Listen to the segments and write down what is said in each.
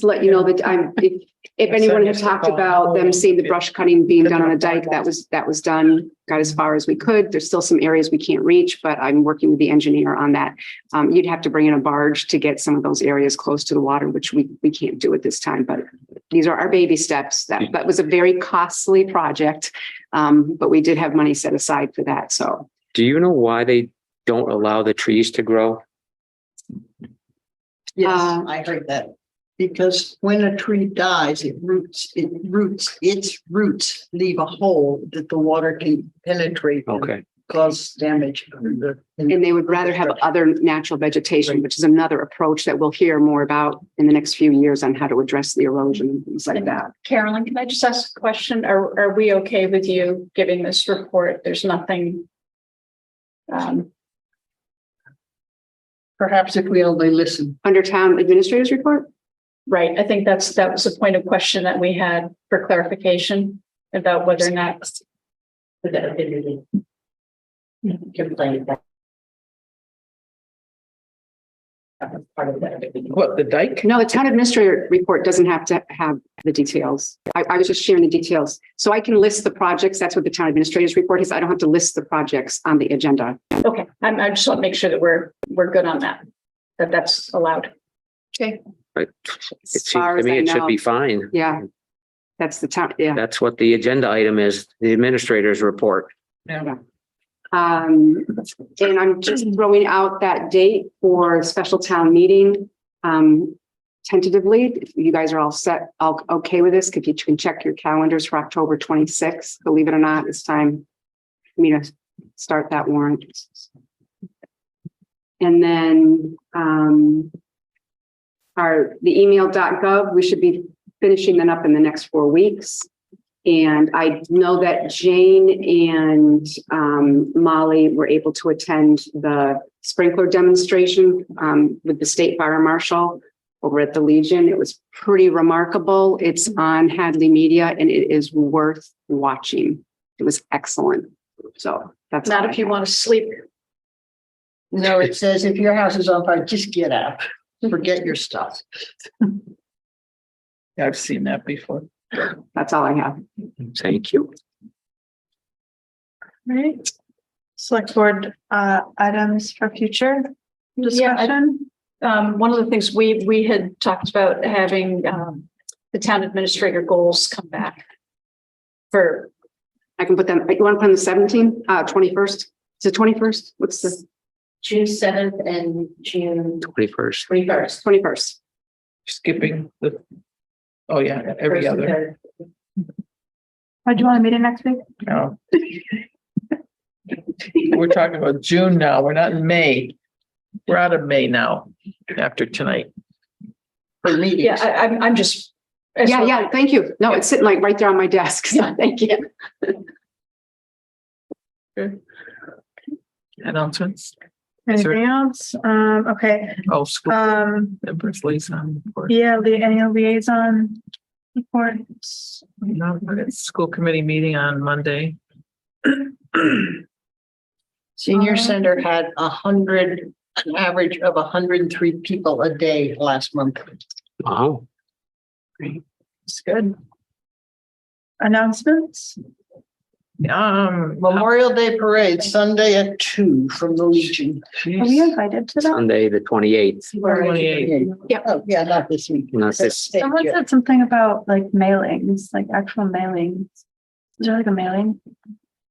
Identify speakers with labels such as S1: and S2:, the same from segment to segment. S1: to let you know that I'm, if, if anyone had talked about them seeing the brush cutting being done on a dike, that was, that was done. Got as far as we could. There's still some areas we can't reach, but I'm working with the engineer on that. Um, you'd have to bring in a barge to get some of those areas close to the water, which we, we can't do at this time, but these are our baby steps. That, that was a very costly project. Um, but we did have money set aside for that, so.
S2: Do you know why they don't allow the trees to grow?
S1: Uh,
S3: Yes, Um, I heard that. Because when a tree dies, it roots, it roots, its roots leave a hole that the water can penetrate. and
S2: Okay,
S3: Cause damage. in the- in-
S1: And they would rather have other natural vegetation,
S3: Right.
S1: which is another approach that we'll hear more about in the next few years on how to address the erosion and things like that.
S4: Carolyn, can I just ask a question? Are, are we okay with you giving this report? There's nothing. Um,
S3: Perhaps if we only listen.
S1: Under town administrators report,
S4: right, I think that's, that was a point of question that we had for clarification about whether or not.
S5: What, the dike?
S1: no, the town administrator report doesn't have to have the details. I, I was just sharing the details. So I can list the projects. That's what the town administrators report is. I don't have to list the projects on the agenda.
S4: Okay, I'm, I just want to make sure that we're, we're good on that, that that's allowed.
S2: but it
S1: As
S2: seems
S1: far
S2: to
S1: as
S2: me
S1: I
S2: it should
S1: know,
S2: be fine.
S1: yeah. That's the town, yeah.
S2: That's what the agenda item is, the administrator's report.
S1: Um, and I'm just throwing out that date for special town meeting. Um, tentatively, if you guys are all set, all okay with this, if you can check your calendars for October twenty-sixth, believe it or not, it's time. for Me to start that warrant. And then, um. Our, the email.gov, we should be finishing that up in the next four weeks. And I know that Jane and um, Molly were able to attend the sprinkler demonstration um, with the state fire marshal over at the Legion. It was pretty remarkable. It's on Hadley Media and it is worth watching. It was excellent. So that's. all
S4: Not
S1: I
S4: if you
S1: have.
S4: want to sleep.
S3: No, it says if your house is on fire, just get out. Forget your stuff.
S5: I've seen that before.
S1: That's all I have.
S2: Thank you.
S6: Right. Select board uh items for future
S4: Yeah, I-
S6: discussion.
S4: um, one of the things we, we had talked about having, um, the town administrator goals come back for,
S1: I can put them, you want to put on the seventeenth, uh, twenty-first? Is it twenty-first? What's the
S7: June seventh and June
S2: Twenty-first.
S7: twenty-first.
S1: twenty-first?
S5: Skipping the, oh yeah, every other,
S6: Oh, do you want a meeting next week?
S5: no. We're talking about June now. We're not in May. We're out of May now after tonight.
S3: For meetings.
S4: yeah, I, I'm, I'm just.
S1: Yeah, yeah, thank you. No, it's sitting like right there on my desk. So Thank you.
S5: Announcements. Sure.
S6: Anything else? Um, okay,
S5: Oh, school
S6: um,
S5: members liaison. report.
S6: yeah, the annual liaison reports.
S5: No, it's School committee meeting on Monday.
S3: Senior
S6: Uh,
S3: Center had a hundred, an average of hundred and three people a day last month.
S2: Wow.
S5: It's good.
S6: Announcements?
S5: Um,
S3: Memorial Day Parade Sunday at two from the Legion.
S6: Are we invited to that?
S2: Sunday, the twenty-eighth.
S5: Twenty-eight.
S3: Yeah, oh, yeah, not this week.
S2: Not this-
S3: Thank
S6: Someone
S3: you.
S6: said something about like mailings, like actual mailings. Is there like a mailing?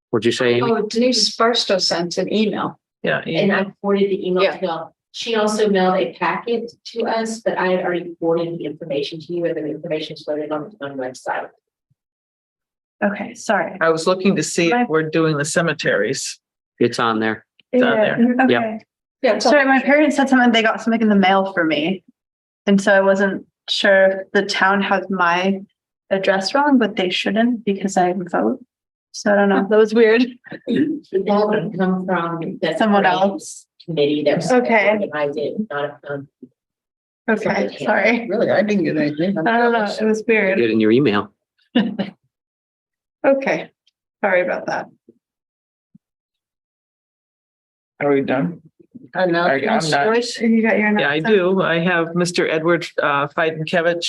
S2: What'd you say? Amy?
S4: Oh, Denise Barstow sent an email.
S5: Yeah.
S7: And I forwarded the email
S4: Yeah.
S7: to y'all. She also mailed a packet to us, but I had already forwarded the information to you and the information is loaded on the town website.
S6: Okay, sorry.
S5: I was looking to see if we're doing the cemeteries.
S2: It's on there.
S5: It's on there.
S6: Yeah,
S2: Yep.
S6: Okay.
S4: Yeah, it's all-
S6: Sorry, my parents said something, they got something in the mail for me. And so I wasn't sure if the town has my address wrong, but they shouldn't because I didn't vote. So I don't know, that was weird.
S7: That would come from the.
S6: Someone else.
S7: Committee that was.
S6: Okay.
S7: organized it, not a, um,
S6: Okay, sorry.
S3: Really, I didn't get anything.
S6: I don't know, it was
S2: Get
S6: weird.
S2: it in your email.
S6: Okay, sorry about that.
S5: Are we done?
S3: Announcements,
S5: not-
S3: Joyce?
S6: You got your.
S5: Yeah, I
S6: announcement?
S5: do. I have Mr. Edward uh, Fidenkevich